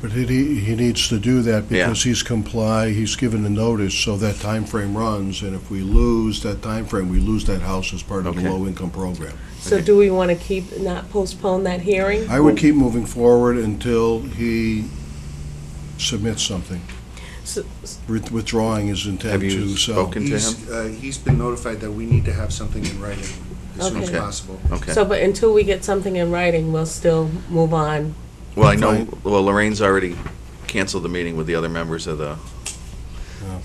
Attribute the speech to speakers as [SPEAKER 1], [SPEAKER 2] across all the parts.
[SPEAKER 1] But he, he needs to do that
[SPEAKER 2] Yeah.
[SPEAKER 1] because he's comply, he's given a notice, so that time frame runs, and if we lose that time frame, we lose that house as part of the
[SPEAKER 2] Okay.
[SPEAKER 1] low-income program.
[SPEAKER 3] So do we want to keep, not postpone that hearing?
[SPEAKER 1] I would keep moving forward until he submits something,
[SPEAKER 3] So-
[SPEAKER 1] with- withdrawing his intent
[SPEAKER 2] Have you
[SPEAKER 1] to sell.
[SPEAKER 2] spoken? Into
[SPEAKER 4] He's, uh, he's been notified that we need to have something in writing as soon as
[SPEAKER 3] Okay.
[SPEAKER 4] possible.
[SPEAKER 2] Okay.
[SPEAKER 3] So, but until we get something in writing, we'll still move on.
[SPEAKER 2] Well, I know, well, Lorraine's already canceled the meeting with the other members of the,
[SPEAKER 1] Yeah.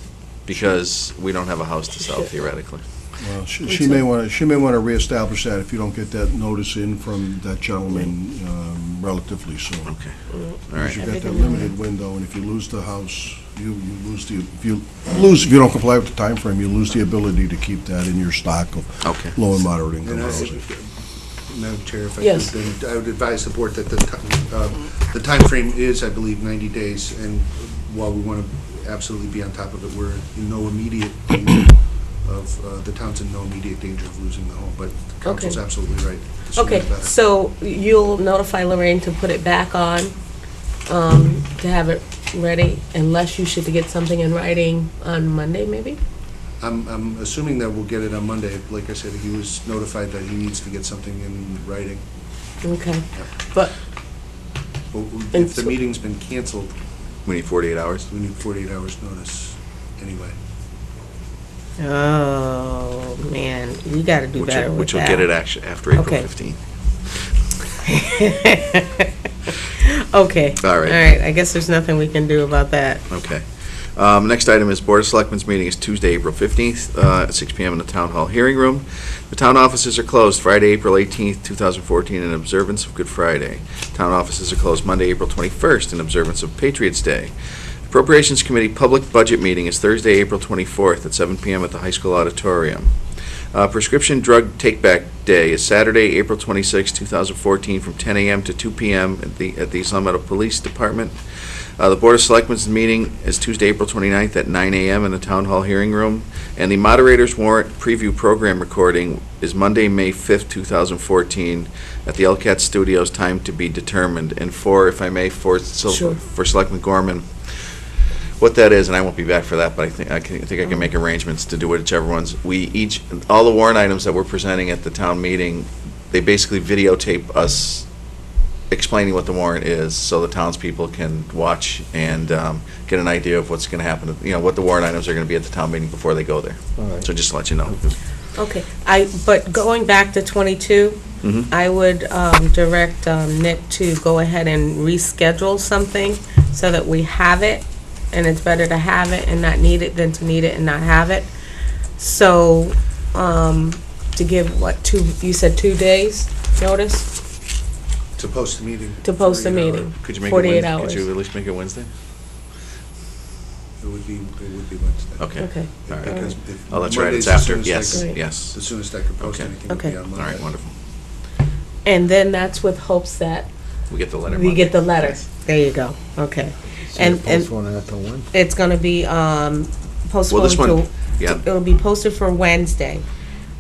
[SPEAKER 2] because we don't have a house to sell theoretically.
[SPEAKER 1] Well, She she may want to, she may want to reestablish that if you don't get that notice in from that gentleman um, relatively soon.
[SPEAKER 2] Okay,
[SPEAKER 5] Mm-hmm.
[SPEAKER 2] all
[SPEAKER 1] Because
[SPEAKER 2] right.
[SPEAKER 1] you've got that
[SPEAKER 3] Everything in
[SPEAKER 1] limited window, and if you lose the house, you you lose the, if you lose, if you don't comply with the time frame, you lose the ability to keep that in your stock of
[SPEAKER 2] Okay.
[SPEAKER 1] low and moderate income
[SPEAKER 4] And I,
[SPEAKER 1] housing.
[SPEAKER 4] Madam Chair, if I
[SPEAKER 3] Yes.
[SPEAKER 4] could, then I would advise the board that the, ti- uh, the timeframe is, I believe, 90 days, and while we want to absolutely be on top of it, we're in no immediate danger of, uh, the town's in no immediate danger of losing the home, but the council's
[SPEAKER 3] Okay.
[SPEAKER 4] absolutely right. The sooner
[SPEAKER 3] Okay,
[SPEAKER 4] the better.
[SPEAKER 3] so you'll notify Lorraine to put it back on, um, to have it ready, unless you should get something in writing on Monday, maybe?
[SPEAKER 4] I'm, I'm assuming that we'll get it on Monday. Like I said, he was notified that he needs to get something in writing.
[SPEAKER 3] Okay, but,
[SPEAKER 4] But we-
[SPEAKER 3] And
[SPEAKER 4] if the
[SPEAKER 3] so-
[SPEAKER 4] meeting's been canceled,
[SPEAKER 2] We need 48 hours.
[SPEAKER 4] we need 48 hours' notice anyway.
[SPEAKER 5] Oh, man, we gotta do
[SPEAKER 2] Which
[SPEAKER 5] better
[SPEAKER 2] will,
[SPEAKER 5] with
[SPEAKER 2] which will get it
[SPEAKER 5] that.
[SPEAKER 2] act- after April
[SPEAKER 5] Okay.
[SPEAKER 2] 15th.
[SPEAKER 5] Okay.
[SPEAKER 2] All right.
[SPEAKER 5] All right, I guess there's nothing we can do about that.
[SPEAKER 2] Okay. Um, Next item is Board of Selectmen's meeting is Tuesday, April 15th, uh, at 6 PM in the Town Hall Hearing Room. The town offices are closed Friday, April 18th, 2014, in observance of Good Friday. Town offices are closed Monday, April 21st, in observance of Patriots' Day. Appropriations Committee Public Budget Meeting is Thursday, April 24th, at 7 PM at the High School Auditorium. Uh, Prescription Drug Take-Back Day is Saturday, April 26th, 2014, from 10 AM to 2 PM at the at the East Long Meadow Police Department. Uh, The Board of Selectmen's meeting is Tuesday, April 29th at 9 a.m. in the Town Hall Hearing Room, and the Moderator's Warrant Preview Program recording is Monday, May 5th, 2014, at the LCAT Studios, time to be determined. And for, if I may, for, Sil-
[SPEAKER 3] Sure.
[SPEAKER 2] for Selectman Gorman, what that is, and I won't be back for that, but I think, I can, I think I can make arrangements to do whichever ones. We each, all the warrant items that we're presenting at the town meeting, they basically videotape us explaining what the warrant is, so the townspeople can watch and um, get an idea of what's going to happen, you know, what the warrant items are going to be at the town meeting before they go there. So just to let you know.
[SPEAKER 5] Okay, I, but going back to twenty-two,
[SPEAKER 2] Mhm.
[SPEAKER 5] I would um, direct um, Nick to go ahead and reschedule something so that we have it, and it's better to have it and not need it than to need it and not have it. So, um, to give, what, two, you said two days notice
[SPEAKER 4] To post the meeting.
[SPEAKER 3] To post the
[SPEAKER 4] 48 hour.
[SPEAKER 3] meeting.
[SPEAKER 2] Could you make it
[SPEAKER 3] 48
[SPEAKER 2] Wednes-
[SPEAKER 3] hours.
[SPEAKER 2] Could you at least make it Wednesday?
[SPEAKER 4] It would be, it would be Wednesday.
[SPEAKER 2] Okay.
[SPEAKER 3] okay.
[SPEAKER 2] All right.
[SPEAKER 4] Because if
[SPEAKER 2] Oh, that's right, it's
[SPEAKER 4] Monday's the
[SPEAKER 2] after,
[SPEAKER 4] soonest I
[SPEAKER 2] yes,
[SPEAKER 4] could-
[SPEAKER 3] Right.
[SPEAKER 2] yes.
[SPEAKER 4] The soonest I could post
[SPEAKER 2] Okay.
[SPEAKER 4] anything would
[SPEAKER 5] Okay.
[SPEAKER 4] be on
[SPEAKER 2] All
[SPEAKER 4] Monday.
[SPEAKER 2] right, wonderful.
[SPEAKER 3] And then that's with hopes that
[SPEAKER 2] We get the letter.
[SPEAKER 3] we get the
[SPEAKER 2] Monday.
[SPEAKER 3] letter.
[SPEAKER 5] There you go, okay. And, and it's gonna be, um,
[SPEAKER 2] Well,
[SPEAKER 5] postponed
[SPEAKER 2] this
[SPEAKER 5] to
[SPEAKER 2] one, yeah,
[SPEAKER 5] It'll be posted for Wednesday.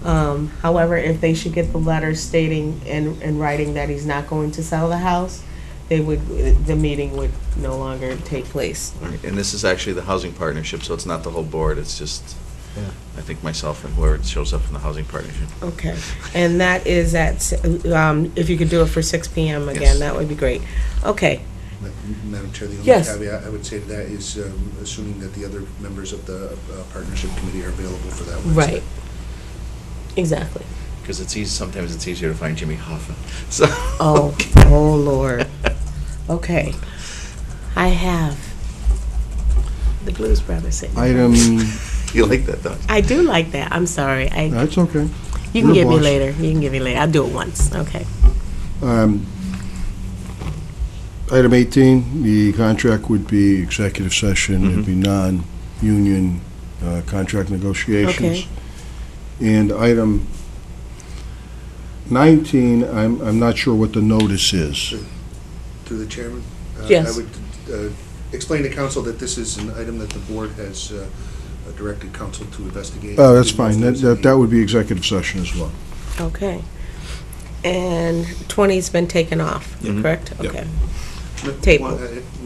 [SPEAKER 5] Um, However, if they should get the letter stating in, in writing that he's not going to sell the house, they would, the meeting would no longer take place.
[SPEAKER 2] All right, and this is actually the housing partnership, so it's not the whole board, it's just, I think myself and whoever shows up in the housing partnership.
[SPEAKER 5] Okay. And that is at, s- um, if you could do it for six PM
[SPEAKER 2] Yes.
[SPEAKER 5] again, that would be great. Okay,
[SPEAKER 4] Ma- Madam Chair, the only
[SPEAKER 3] Yes.
[SPEAKER 4] caveat I would say to that is um, assuming that the other members of the uh, partnership committee are available for that Wednesday.
[SPEAKER 3] Right. Exactly.
[SPEAKER 2] Because it's easy, sometimes it's easier to find Jimmy Hoffa, so.
[SPEAKER 5] oh, oh Lord. Okay. I have the Blues Brothers sitting.
[SPEAKER 1] Item,
[SPEAKER 2] You like that, though?
[SPEAKER 5] I do like that, I'm sorry. I
[SPEAKER 1] that's okay.
[SPEAKER 5] You can
[SPEAKER 1] You're
[SPEAKER 5] give me
[SPEAKER 1] boss.
[SPEAKER 5] later. You can give me later. I'll do it once. Okay.
[SPEAKER 1] Um, Item 18, the contract would be executive session, it'd be
[SPEAKER 2] Mm-hmm.
[SPEAKER 1] non-union uh, contract negotiations.
[SPEAKER 5] Okay.
[SPEAKER 1] And item 19, I'm, I'm not sure what the notice is.
[SPEAKER 4] Through the chairman? uh,
[SPEAKER 3] Yes.
[SPEAKER 4] I would uh, explain to council that this is an item that the board has uh, directed council to investigate.
[SPEAKER 1] Oh, that's
[SPEAKER 4] Didn't know if
[SPEAKER 1] fine,
[SPEAKER 4] there
[SPEAKER 1] that,
[SPEAKER 4] was
[SPEAKER 1] that
[SPEAKER 4] any-
[SPEAKER 1] that would be executive session as well.
[SPEAKER 5] Okay. And 20's been taken off,
[SPEAKER 2] Mhm.
[SPEAKER 5] correct?
[SPEAKER 1] Mm-hmm. Yep.
[SPEAKER 5] Okay.
[SPEAKER 4] No,
[SPEAKER 5] table.
[SPEAKER 4] one- uh,